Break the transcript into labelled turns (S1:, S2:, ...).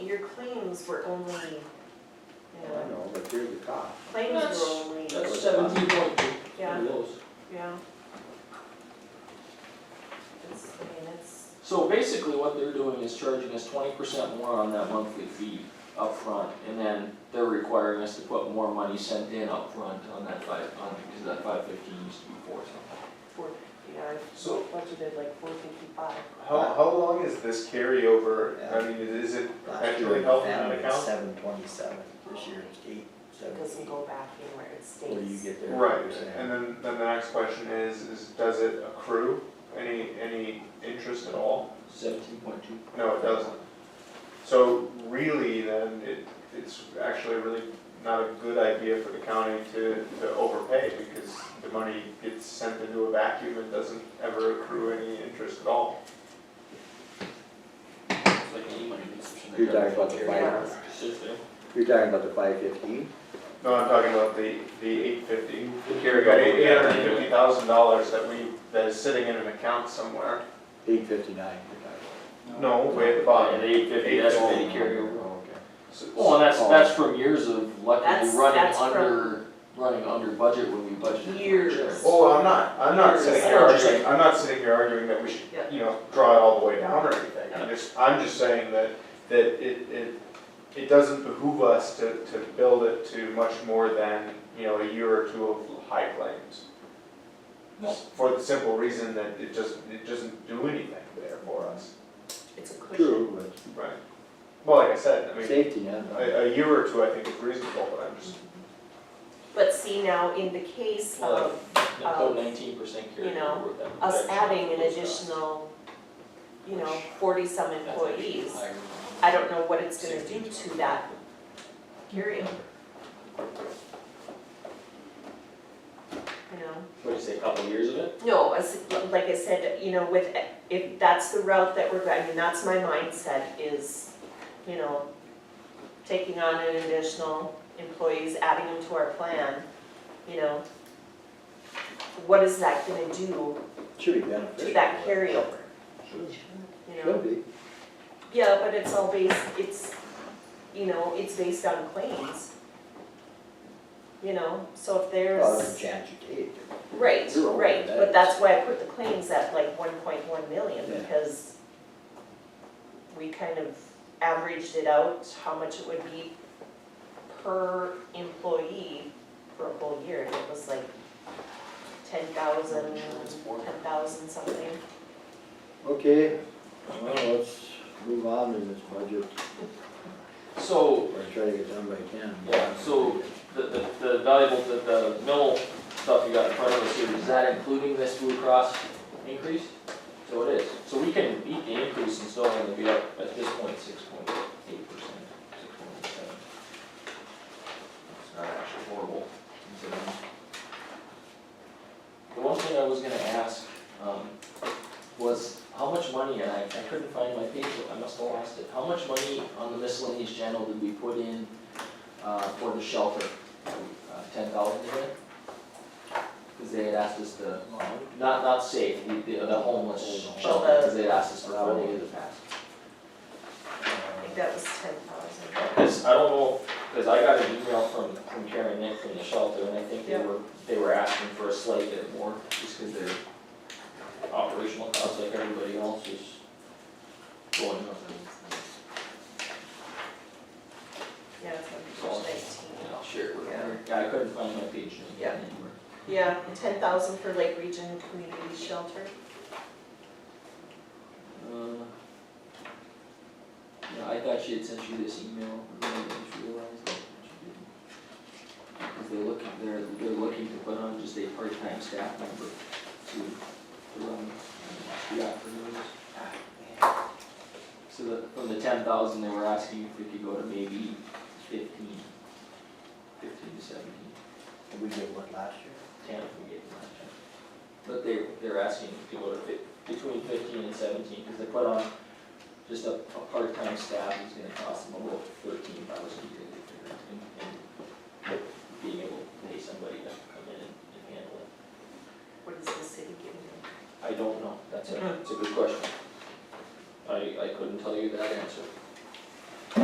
S1: your claims were only, you know,
S2: I know, but here's the cost.
S1: claims
S3: That's-
S1: were only,
S3: That's seventeen point two.
S1: yeah,
S2: Those.
S1: yeah. It's, I mean, it's,
S3: So basically what they're doing is charging us twenty percent more on that monthly fee upfront, and then they're requiring us to put more money sent in upfront on that five, on, because that five fifteen used to be four something.
S1: four, yeah,
S4: So
S1: budgeted like four fifty-five.
S4: how, how long is this carryover? I mean, is it
S5: Last year,
S4: perpetually
S5: the
S4: held in an
S5: family was
S4: account?
S5: seven twenty-seven, this year it's eight
S1: It doesn't
S5: seventy,
S1: go back in where it stays.
S5: where you get there.
S4: Right, and then, then the next question is, is does it accrue any, any interest at all?
S3: Seventeen point two.
S4: No, it doesn't. So really, then, it, it's actually really not a good idea for the county to, to overpay because the money gets sent into a vacuum and doesn't ever accrue any interest at all.
S3: It's like any money that's.
S2: You're talking about the
S1: Yeah.
S2: five,
S3: Sits there.
S2: you're talking about the five fifteen?
S4: No, I'm talking about the, the eight fifty.
S3: The
S4: We got eight hundred and fifty thousand dollars that we, that is sitting in an account somewhere.
S2: Eight fifty-nine.
S4: No, way at the bottom.
S3: Yeah, the eight fifty, that's what they carry over.
S4: Oh,
S2: Okay.
S3: Well, and that's,
S2: Oh.
S3: that's from years of luckily
S1: That's-
S3: running
S1: that's from-
S3: under, running under budget when we budgeted. for
S1: Years.
S3: insurance.
S4: Oh, I'm not, I'm not sitting here
S1: Yes.
S4: arguing, I'm not sitting here arguing that we should,
S1: Yeah.
S4: you know, draw it all the way down or anything. I'm just, I'm just saying that, that it, it, it doesn't behoove us to, to build it to much more than, you know, a year or two of high claims.
S3: No.
S4: For the simple reason that it just, it doesn't do anything there for us.
S1: It's a cushion.
S2: True,
S4: Right. Well, like I said, I
S2: but
S4: mean, oh,
S2: safety net.
S4: a, a year or two, I think is reasonable, but I'm just,
S1: Mm-hmm. But see now, in the case
S3: Well,
S1: of
S3: They put nineteen percent
S1: you
S3: carry
S1: know,
S3: over with that.
S1: us
S3: protection
S1: adding an
S3: those costs.
S1: additional, you know, forty-some
S3: That's actually
S1: employees,
S3: higher.
S1: I don't know what it's gonna do to that carryover. You know?
S3: What'd you say, a couple years of it?
S1: No, as, like I said, you know, with, if that's the route that we're, I mean, that's my mindset is, you know, taking on an additional employees, adding them to our plan, you know. What is that gonna do
S2: Should be beneficial.
S1: to that carryover,
S2: Should-
S1: you know?
S2: Should be.
S1: Yeah, but it's all based, it's, you know, it's based on claims. You know, so if there's.
S2: Well, there's a chance you take it.
S1: Right,
S2: Zero
S1: right, but
S2: on that.
S1: that's why I put the claims at like one point one million,
S2: Yeah.
S1: because we kind of averaged it out, how much it would be per employee for a whole year, and it was like ten thousand, ten thousand something.
S2: Okay, well, let's move on in this budget,
S3: So,
S2: or try to get done by ten.
S3: Yeah, so- the, the, the valuable, the, the mill stuff you got in front of us here, is that including this Blue Cross increase? So it is, so we can beat the increase and still only be up at this point six point eight percent, six point eight seven. It's not actually horrible, considering. The one thing I was gonna ask, um, was how much money, and I, I couldn't find my paper, I must have lost it, how much money on the miscellaneous channel did we put in uh, for the shelter, Uh, ten thousand in it. Cause they had asked us to, not, not safe, we, the the homeless shelter, cause they had asked us for funding in the past.
S1: I think that was ten thousand.
S3: Cause I don't know, cause I got an email from, from Karen Nick from the shelter, and I think they
S1: Yeah.
S3: were, they were asking for a slight bit more, just cause their operational costs like everybody else is going up.
S1: Yeah, it's on page nineteen.
S3: And I'll share it with her, yeah, I couldn't find my page
S1: Yeah.
S3: anywhere.
S1: Yeah, ten thousand for Lake Region Community Shelter.
S3: Uh, Yeah, I thought she had sent you this email, but then I just realized that she didn't. Cause they're looking, they're, they're looking to put on just a part-time staff member to, to run, the afternoons. So the, from the ten thousand, they were asking if we could go to maybe fifteen, fifteen to seventeen,
S5: We did what last year?
S3: ten if we get last time. But they, they're asking if we go to fif- between fifteen and seventeen, cause they put on just a, a part-time staff is gonna cost them about thirteen thousand a year, they figure, and, and being able to pay somebody to come in and, and handle it.
S1: What is the city giving them?
S3: I don't know, that's a,
S1: Mhm.
S3: it's a good question. I, I couldn't tell you that answer.